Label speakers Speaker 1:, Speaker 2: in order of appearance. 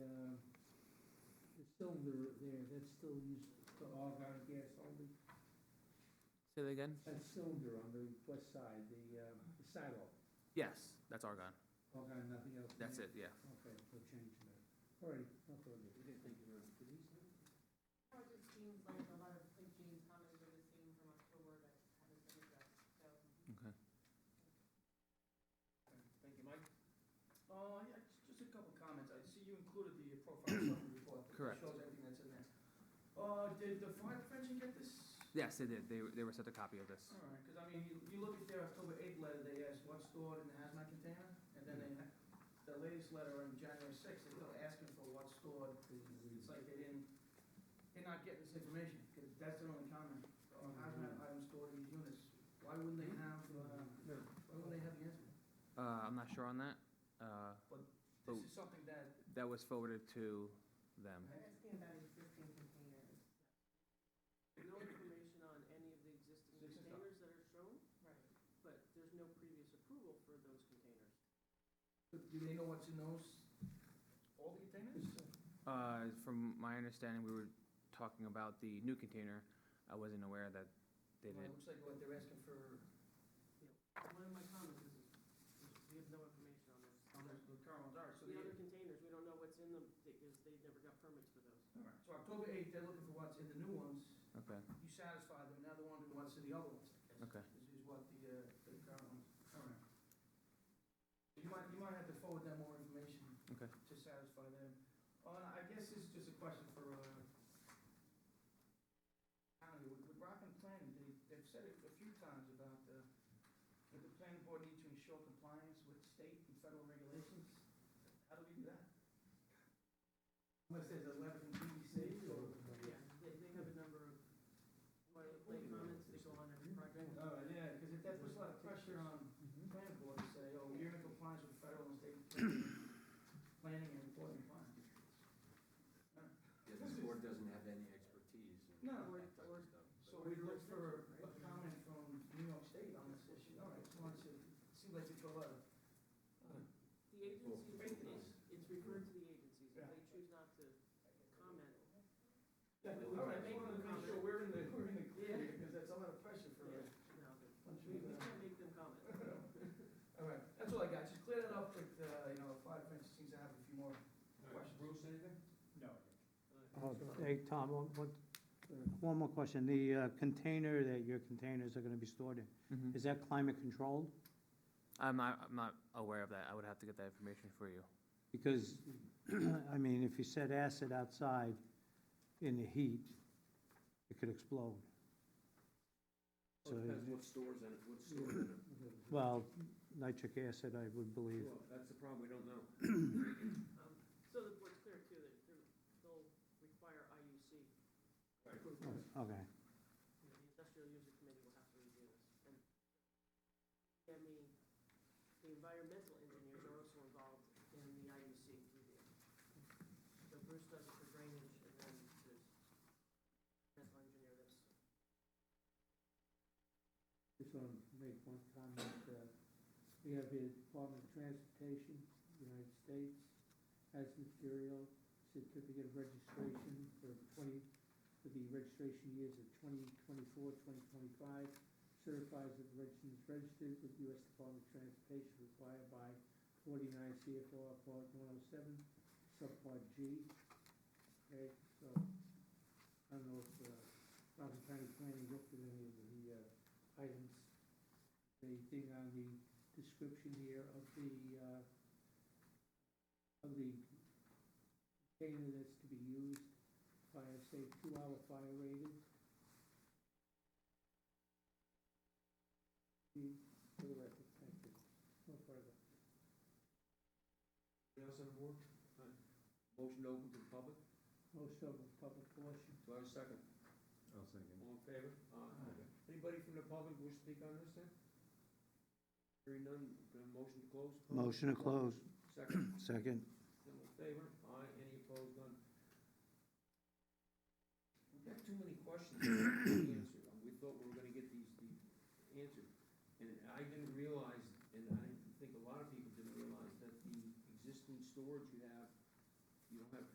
Speaker 1: um, there, that's still used for argon gas only.
Speaker 2: Say that again?
Speaker 1: That cylinder on the west side, the, uh, the sidewalk,
Speaker 2: Yes, that's argon.
Speaker 1: argon, nothing else. in
Speaker 2: That's
Speaker 1: there?
Speaker 2: it, yeah.
Speaker 1: Okay, we'll change that. All right, no further. Thank you,
Speaker 3: Well,
Speaker 1: Ron.
Speaker 3: It just seems like a lot of, like James comments are the same from October that haven't been addressed, so.
Speaker 2: Okay.
Speaker 4: Thank you, Mike. Uh, yeah, j- just a couple comments. I see you included the profile summary report. that
Speaker 2: Correct.
Speaker 4: Shows everything that's in there. Uh, did the fire prevention get this?
Speaker 2: Yes, they did. They, they were sent a copy of this.
Speaker 4: All right, because I mean, you, you look at their October eighth letter, they asked what's stored in the hazmat container, and then they, ha- the latest letter on January sixth, they're still asking for what's stored.
Speaker 1: Uh,
Speaker 4: It's like they didn't, they're not getting this information, because that's their only comment. Uh, hazmat items stored in these units. Why wouldn't they have, uh, why wouldn't they have the answer?
Speaker 2: Uh, I'm not sure on that. Uh,
Speaker 4: This
Speaker 2: Oh.
Speaker 4: is something that
Speaker 2: that was forwarded to them.
Speaker 3: I'm asking about existing containers.
Speaker 5: No information on any of the existing
Speaker 4: Existing stuff.
Speaker 5: containers that are shown,
Speaker 3: Right.
Speaker 5: but there's no previous approval for those containers.
Speaker 4: Do they know what's in those, all the containers?
Speaker 2: Uh, from my understanding, we were talking about the new container. I wasn't aware that they
Speaker 4: Well,
Speaker 2: did.
Speaker 4: It looks like what they're asking for,
Speaker 5: One of my comments is, is we have no information on those.
Speaker 4: on the the current dark, so
Speaker 5: The
Speaker 4: they,
Speaker 5: other containers, we don't know what's in them, because they never got permits for those.
Speaker 4: all right, so October eighth, they're looking for what's in the new ones,
Speaker 2: Okay,
Speaker 4: you satisfy them, now they're wondering what's in the other ones, I guess.
Speaker 2: okay.
Speaker 4: This is what the, uh, the current ones, all right. You might, you might have to forward them more information.
Speaker 2: Okay.
Speaker 4: To satisfy them. Uh, I guess this is just a question for, uh, county, with, with Rockland Planning, they, they've said it a few times about, uh, that the planning board needs to ensure compliance with state and federal regulations. How do we do that? Unless there's a letter from DEC or.
Speaker 5: Yeah, they, they have a number of, my, my comments, they go on every project.
Speaker 4: Oh, yeah, because if that puts a lot of pressure on
Speaker 1: Mm-hmm.
Speaker 4: planning board to say, oh, you're in compliance with federal and state planning and employment plan.
Speaker 6: Yeah, this board doesn't have any expertise in
Speaker 4: No.
Speaker 6: that type of stuff.
Speaker 4: So we look for a comment from New York State on this issue, all right, so it's, it seems like it's a lot of.
Speaker 5: The agencies,
Speaker 4: Well,
Speaker 5: it's, it's referred to the agencies, if they choose not to comment.
Speaker 4: Yeah, but we
Speaker 5: All
Speaker 4: want
Speaker 5: right.
Speaker 4: to make sure we're in the, we're in the clear, because that's a lot of pressure for us.
Speaker 5: Yeah, no, but
Speaker 4: Once
Speaker 5: we
Speaker 4: we,
Speaker 5: we
Speaker 4: uh,
Speaker 5: can't make them comment.
Speaker 4: All right, that's all I got, just clear that up with, uh, you know, fire fence seems to have a few more questions. Bruce, anything?
Speaker 6: No.
Speaker 5: um,
Speaker 7: Oh, Hey, Tom, one, one- one more question. The uh, container that your containers are gonna be stored in,
Speaker 2: Mhm.
Speaker 7: is that climate controlled?
Speaker 2: I'm not, I'm not aware of that. I would have to get that information for you.
Speaker 7: Because, I mean, if you set acid outside in the heat, it could explode. So,
Speaker 6: what stores in it, what's stored in it.
Speaker 7: well, nitric acid, I would believe.
Speaker 6: That's the problem, we don't know.
Speaker 5: Um, So the board's clear too, that they're- they'll require IUC.
Speaker 6: Right.
Speaker 5: approval.
Speaker 7: Oh, Okay.
Speaker 5: you know, the industrial user committee will have to review this. And, I mean, the environmental engineers are also involved in the IUC review. So Bruce does it for drainage, and then there's environmental engineer that's,
Speaker 1: Just want to make one comment. uh, We have the Department of Transportation, United States, has material, certificate of registration for twenty, for the registration years of 2024, 2025, certifies that the registrant is registered with U.S. Department of Transportation required by 49 CFR Part 107, Subpart G. Okay, so I don't know if uh, Rockland County Planning looked at any of the uh, items. The thing on the description here of the, uh, of the container that's to be used, fire safe, two-hour fire rated. The, Hmm, for the record, thank you. No further.
Speaker 6: Anything else on the board? Alright. Motion open to the public,
Speaker 1: Most of the public portion.
Speaker 6: do I have a second?
Speaker 8: I'll second.
Speaker 6: All in favor?
Speaker 4: Aye.
Speaker 6: Anybody from the public wish to speak on this then? Hearing none, uh, motion to close?
Speaker 7: Motion to close,
Speaker 6: Second,
Speaker 7: second.
Speaker 6: all in favor? Aye, any opposed, none? We've got too many questions to answer, we thought we were gonna get these, these answered. And I didn't realize, and I think a lot of people didn't realize, that the existing storage you have